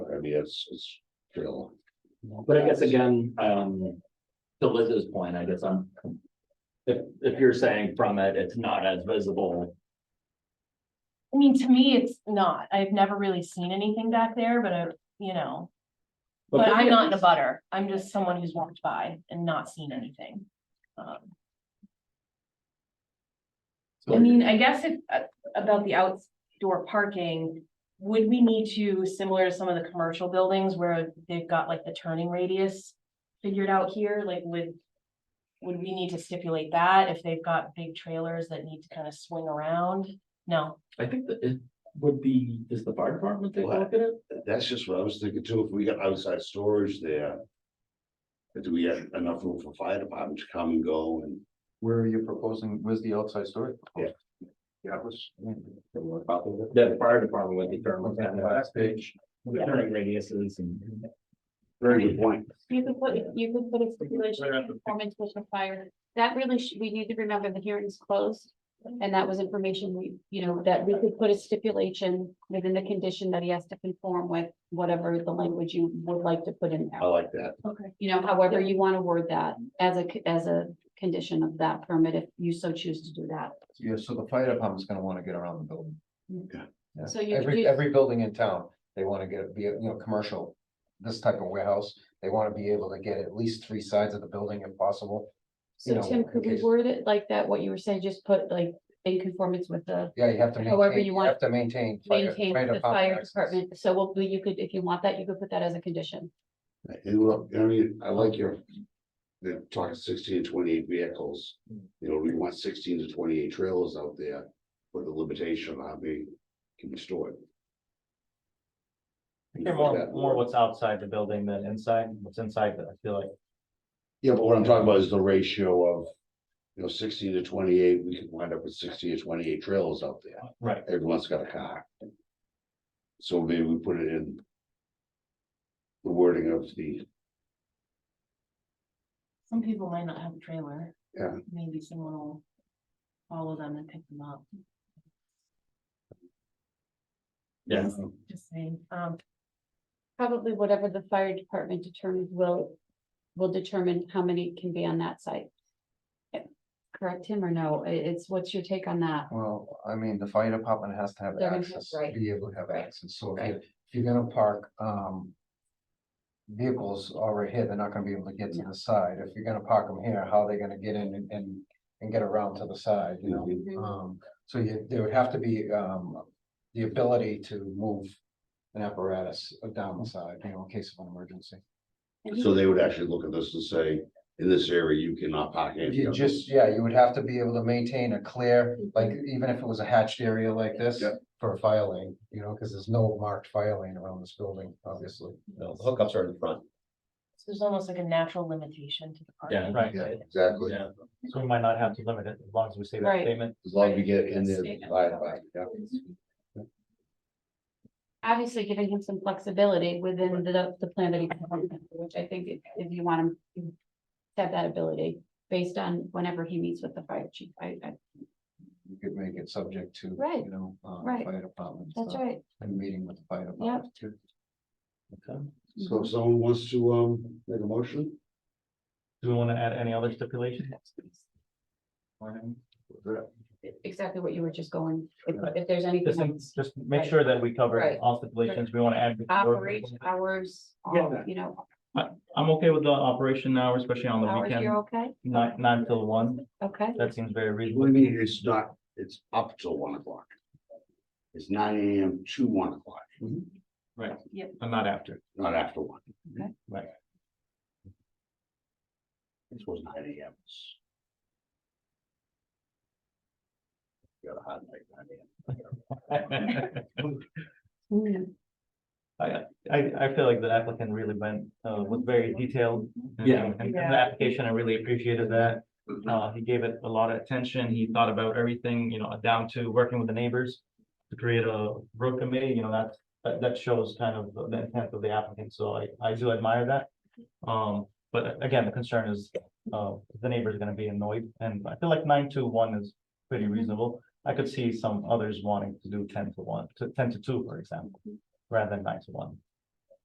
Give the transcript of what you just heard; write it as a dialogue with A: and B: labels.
A: maybe it's, it's still.
B: But I guess again, um, to Liz's point, I guess I'm. If, if you're saying from it, it's not as visible,
C: I mean, to me, it's not. I've never really seen anything back there, but I, you know, but I'm not in a butter. I'm just someone who's walked by and not seen anything. Um, I mean, I guess if, uh, about the outdoor parking, would we need to, similar to some of the commercial buildings where they've got like the turning radius figured out here, like would, would we need to stipulate that if they've got big trailers that need to kind of swing around? No,
B: I think that it would be, is the fire department take a look at it?
A: That's just what I was thinking too, if we got outside storage there. Do we have enough room for fire department to come and go and?
D: Where are you proposing, where's the outside story?
A: Yeah.
D: Yeah, it was.
B: The fire department would determine that,
D: Last page.
B: the turning radiuses and.
A: Very good point.
E: You could put, you could put a stipulation,
D: Right after-
E: performance was required, that really, should- we need to remember the hearing's closed. And that was information we, you know, that we could put a stipulation within the condition that he has to conform with whatever the language you would like to put in
A: I
E: there.
A: like that.
C: okay.
E: You know, however you want to word that as a, c- as a condition of that permit, if you so choose to do that.
D: Yeah, so the fire department's gonna wanna get around the building.
A: Yeah.
D: Yeah,
E: Mm. So you-
D: Every,
E: you-
D: every building in town, they wanna get, be, you know, commercial, this type of warehouse, they wanna be able to get at least three sides of the building if possible. You
E: So
D: know,
E: Tim, could
D: in
E: we
D: case-
E: word it like that, what you were saying, just put like in conformance with the
D: Yeah, you have to maintain.
E: However you want-
D: Have to maintain. fire-
E: maintain
D: fire
E: the fire
D: access.
E: department, so we'll- we you could, if you want that, you could put that as a condition.
A: And look, I mean, I like your. They're talking sixteen to twenty-eight vehicles, you know, we want sixteen to twenty-eight trailers out there, with the limitation on how many can be stored.
F: They're more, more what's outside the building than inside, what's inside, but I feel like,
A: Yeah, but what I'm talking about is the ratio of, you know, sixteen to twenty-eight, we could wind up with sixteen to twenty-eight trailers out there,
F: right,
A: everyone's got a car. So maybe we put it in. The wording of the,
C: Some people might not have a trailer.
A: Yeah.
C: Maybe someone will follow them and pick them up,
B: Yeah,
C: just saying, um,
E: Probably whatever the fire department determines will, will determine how many can be on that site. Yeah. Correct him or no, I- it's, what's your take on that?
D: Well, I mean, the fire department has to have
E: They're gonna have-
D: access,
E: right.
D: be able to have
E: Right.
D: access, so if
E: Right.
D: you- if you're gonna park, um. Vehicles already here, they're not gonna be able to get to the side, if you're gonna park them here, how are they gonna get in and, and, and get around to the side, you know?
E: Mm-hmm.
F: Uh.
D: Um, so you, there would have to be, um, the ability to move an apparatus down
E: Mm-hmm.
D: the side, you know, in case of an emergency.
A: so they would actually look at this and say, in this area, you cannot park. any
D: You
A: of
D: just,
A: this."
D: yeah, you would have to be able to maintain a clear, like, even if it was a hatched area like this.
A: Yeah.
D: For a fire lane, you know, because there's no marked fire lane around this building, obviously.
G: No, the hookups are in the front.
C: so there's almost like a natural limitation to the parking.
F: right,
A: Yeah, exactly,
B: yeah.
F: so we might not have to limit it as long as we say that
E: Right.
F: statement.
A: as long as we get in there. by- by- yeah.
E: Obviously giving him some flexibility within the, the plan that he, which I think if- if you want him. to Have that ability based on whenever he meets with the fire chief, I, I,
D: You could make it subject to,
E: Right,
D: you know, uh,
E: right.
D: fire department.
E: that's
D: stuff,
E: right.
D: And meeting with the fire department too.
A: So if someone wants to, um, make a motion,
F: Do we wanna add any other stipulations?
E: Exactly what you were just going, if, if there's anything.
F: Just, think-
E: else.
F: just make sure that we cover
E: Right.
F: all stipulations we wanna add. before-
E: Operation hours, all,
F: Yeah.
E: you know,
F: I'm okay with the operation hour, especially on the
E: hours,
F: weekend,
E: you're okay,
F: nine, nine till one,
E: okay?
F: that seems very reasonable.
A: what I mean, it's not, it's up till one o'clock. It's nine AM to one o'clock,
F: I'm not after,
A: not after one.
E: Okay.
F: Right.
A: This was nine AM. Got a hot night, nine AM.
E: Mm,
F: I, I feel like the applicant really went, uh, was very detailed. and-
B: Yeah.
F: and- And the
C: Yeah.
F: application, I really appreciated that. Uh, he gave it a lot of attention. He thought about everything, you know, down to working with the neighbors. To create a road committee, you know, that's, that, that shows kind of the intent of the applicant, so I, I do admire that. Um, but again, the concern is, uh, the neighbor's are gonna be annoyed, and I feel like nine to one is pretty reasonable. I could see some others wanting to do ten to one, to ten to two, for example, rather than nine to one.